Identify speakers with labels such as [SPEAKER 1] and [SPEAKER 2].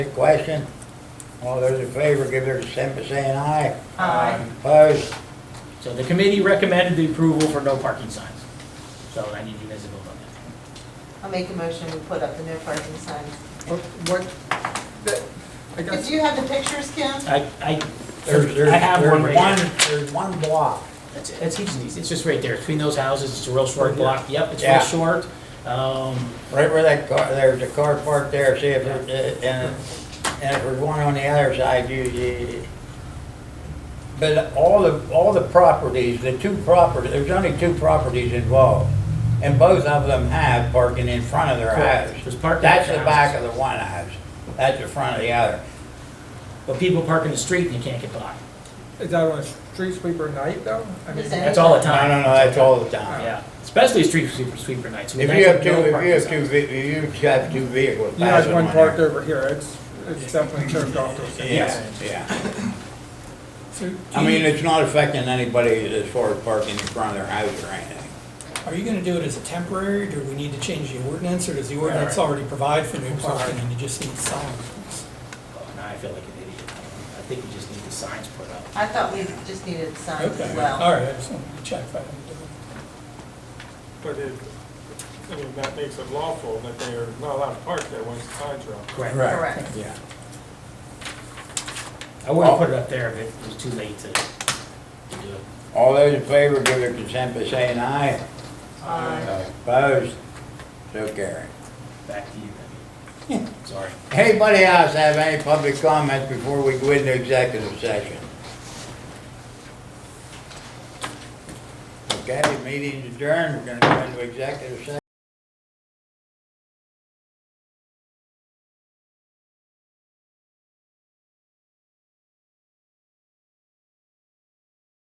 [SPEAKER 1] Good question. All those in favor, give their consent by saying aye.
[SPEAKER 2] Aye.
[SPEAKER 1] Opposed?
[SPEAKER 3] So the committee recommended the approval for no parking signs. So I need you guys to vote on that.
[SPEAKER 2] I'll make a motion to put up the no parking signs.
[SPEAKER 4] What, that- I got,
[SPEAKER 2] Do you have the pictures, Kim?
[SPEAKER 3] I, I,
[SPEAKER 1] There's, there's,
[SPEAKER 3] I have one
[SPEAKER 1] there's
[SPEAKER 3] right
[SPEAKER 1] one,
[SPEAKER 3] here.
[SPEAKER 1] there's one block.
[SPEAKER 3] That's it, that's easy, it's just right there, between those houses, it's a real short block, yep, it's real
[SPEAKER 1] Yeah.
[SPEAKER 3] short. Um,
[SPEAKER 1] Right where that car, there's a car parked there, see if, it- uh, and, and if there's one on the other side, you, you. But all the, all the properties, the two properties, there's only two properties involved. And both of them have parking in front of their
[SPEAKER 3] Correct.
[SPEAKER 1] house.
[SPEAKER 3] There's parking at
[SPEAKER 1] That's
[SPEAKER 3] the
[SPEAKER 1] the back of
[SPEAKER 3] houses.
[SPEAKER 1] the one house, that's the front of the other.
[SPEAKER 3] But people park in the street and you can't get by,
[SPEAKER 4] is that on a street sweeper night though? I mean,
[SPEAKER 2] Is that-
[SPEAKER 3] that's all the
[SPEAKER 1] No,
[SPEAKER 3] time.
[SPEAKER 1] no, no, that's all the time.
[SPEAKER 3] Yeah, especially street sweeper, sweeper nights.
[SPEAKER 1] If you have two, if you have two, ve- if you have two vehicles.
[SPEAKER 4] You guys
[SPEAKER 1] passing
[SPEAKER 4] one
[SPEAKER 1] on
[SPEAKER 4] parked
[SPEAKER 1] there.
[SPEAKER 4] over here, it's, it's definitely turned off to a single
[SPEAKER 1] Yeah,
[SPEAKER 4] sign.
[SPEAKER 1] yeah.
[SPEAKER 5] So do
[SPEAKER 1] I mean,
[SPEAKER 5] you-
[SPEAKER 1] it's not affecting anybody as far as parking in front of their house or anything.
[SPEAKER 5] are you gonna do it as a temporary, do we need to change the ordinance, or does the ordinance already provide for new parking and you just need signs?
[SPEAKER 3] Now I feel like an idiot, I think we just need the signs put up.
[SPEAKER 2] I thought we just needed signs
[SPEAKER 5] Okay,
[SPEAKER 2] as
[SPEAKER 5] all
[SPEAKER 2] Uh, well.
[SPEAKER 5] right, I just wanted to check if I had to do it.
[SPEAKER 6] But it, I mean, that makes it lawful that they are not allowed to park there once the signs are up.
[SPEAKER 3] Correct.
[SPEAKER 2] Correct.
[SPEAKER 1] Yeah.
[SPEAKER 3] I
[SPEAKER 1] Oh.
[SPEAKER 3] would have put it up there, but it was too late to, to do it.
[SPEAKER 1] All those in favor, give their consent by saying aye.
[SPEAKER 2] Aye.
[SPEAKER 1] Opposed? So carried.
[SPEAKER 3] Back to you, Debbie. Sorry.
[SPEAKER 1] Anybody else have any public comments before we go into executive session? Okay, meeting adjourned, we're gonna go into executive session.